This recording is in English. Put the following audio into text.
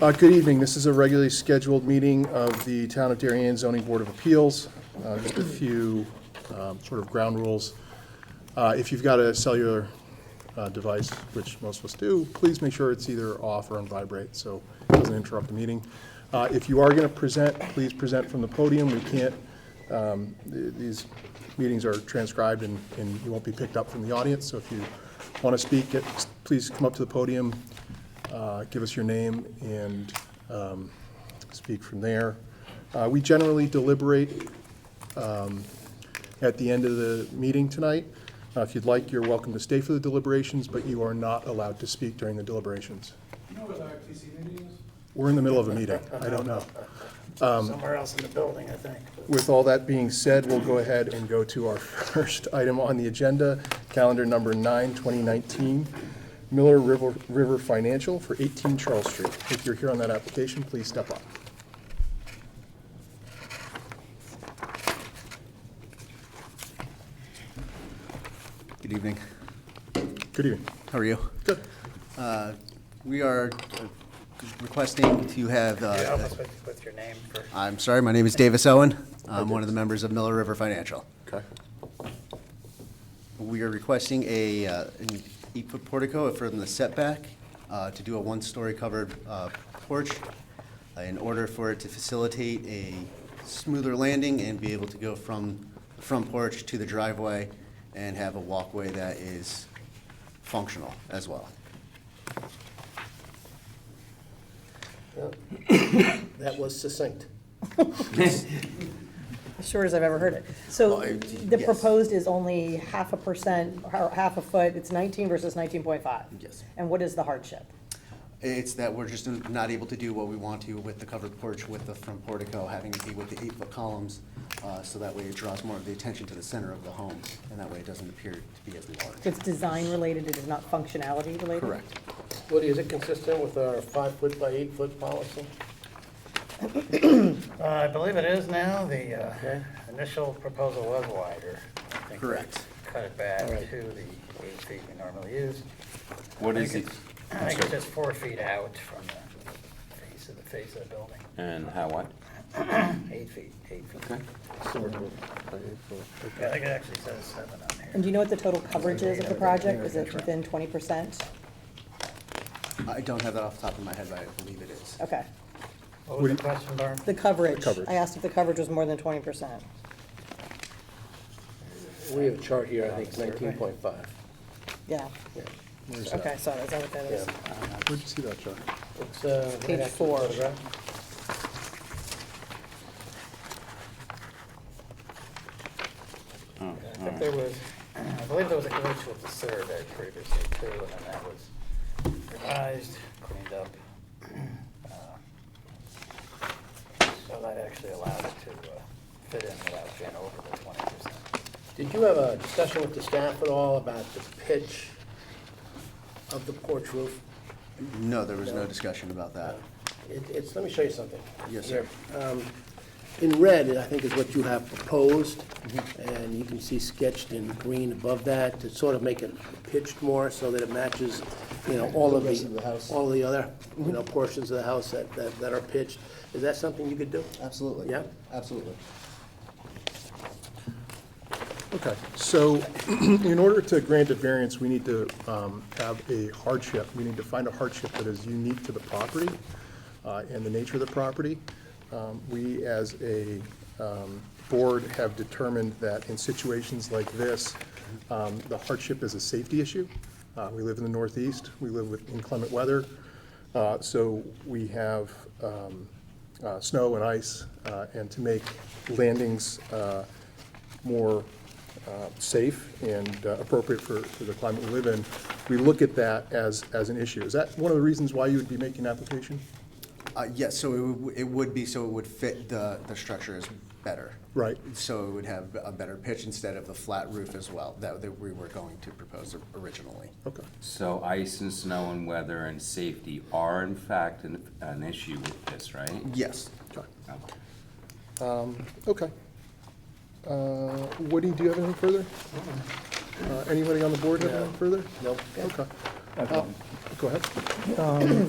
Uh, Good evening. This is a regularly scheduled meeting of the Town of Darien Zoning Board of Appeals. Uh, Just a few um, sort of ground rules. Uh, If you've got a cellular uh, device, which most of us do, please make sure it's either off or on vibrate, so it doesn't interrupt the meeting. Uh, If you are going to present, please present from the podium. We can't, um, th- these meetings are transcribed and and you won't be picked up from the audience, so if you want to speak, get- please come up to the podium, uh, give us your name, and um, speak from there. Uh, We generally deliberate um, at the end of the meeting tonight. Uh, If you'd like, you're welcome to stay for the deliberations, but you are not allowed to speak during the deliberations. You know where the RTC meeting is? We're in the middle of a meeting. I don't know. Somewhere else in the building, I think. With all that being said, we'll go ahead and go to our first item on the agenda, calendar number nine, 2019, Miller River River Financial for 18 Charles Street. If you're here on that application, please step up. Good evening. Good evening. How are you? Good. Uh, We are uh, requesting to have, uh, Yeah, almost with, with your name for. I'm sorry, my name is Davis Owen. I'm one of the members of Miller River Financial. Okay. We are requesting a, uh, an eight-foot portico from the setback uh, to do a one-story covered uh, porch uh, in order for it to facilitate a smoother landing and be able to go from the front porch to the driveway and have a walkway that is functional as well. That was succinct. As Sure as I've ever heard it. So Well, it- the yes. proposed is only half a percent, or half a foot, it's 19 versus 19.5? Yes. And what is the hardship? It's that we're just not able to do what we want to with the covered porch, with the front portico, having it be with the eight-foot columns, uh, so that way it draws more of the attention to the center of the home, and that way it doesn't appear to be as large. It's design related, it is not functionality related? Correct. Woody, is it consistent with our five-foot by eight-foot policy? Uh, I believe it is now, the, uh, initial proposal was wider. I think we Correct. Cut it back to All right. the eight feet we normally use. What I is think it? it's- I think it's just four feet out from the face of the face of the building, And how what? eight feet, eight feet. Okay. Yeah, I think it actually says seven on And here. do you know what the total coverage is of the project? Is it within 20%? I don't have that off the top of my head, but I believe it is. Okay. What was the question, Barb? The coverage, coverage. I asked if the coverage was more than 20%. We have a chart here, I think, nineteen point five. Yeah, Where's okay, that? so is that what that is? Where'd you see that, John? It's, uh. right Page after the four. photograph. I Oh, all think right. there was, I believe there was a glitch with the survey previously too, and then that was revised, cleaned up. Uh, So that actually allowed it to uh, fit in without being over the twenty percent. Did you have a discussion with the staff at all about the pitch of the porch roof? No, there was no discussion about that. It, it's, let me show you something. Yes, sir. Here. Um, In red, I think is what you have proposed, and you can see sketched in green above that to sort of make it pitched more so that it matches, you know, all of the, all the other, you know, portions of the house that, that that are pitched. Is that something you could do? Absolutely. Yeah. Absolutely. Okay, so in order to grant a variance, we need to um, have a hardship. We need to find a hardship that is unique to the property uh, and the nature of the property. Um, We, as a um, board, have determined that in situations like this, um, the hardship is a safety issue. Uh, We live in the Northeast, we live with inclement weather, Uh, so we have um, uh, snow and ice, uh, and to make landings uh, more uh, safe and uh, appropriate for, for the climate we live in, we look at that as, as an issue. Is that one of the reasons why you would be making an application? Uh, yes, so it would, it would be, so it would fit the, the structure is better. Right. So it would have a better pitch instead of the flat roof as well, that, that we were going to propose originally. Okay. So ice and snow and weather and safety are in fact an, an issue with this, right? Yes. Okay. Okay. Okay. Uh, Woody, do you have anything further? Uh, Anybody on the board have anything further? Nope. Okay. Uh, Go ahead.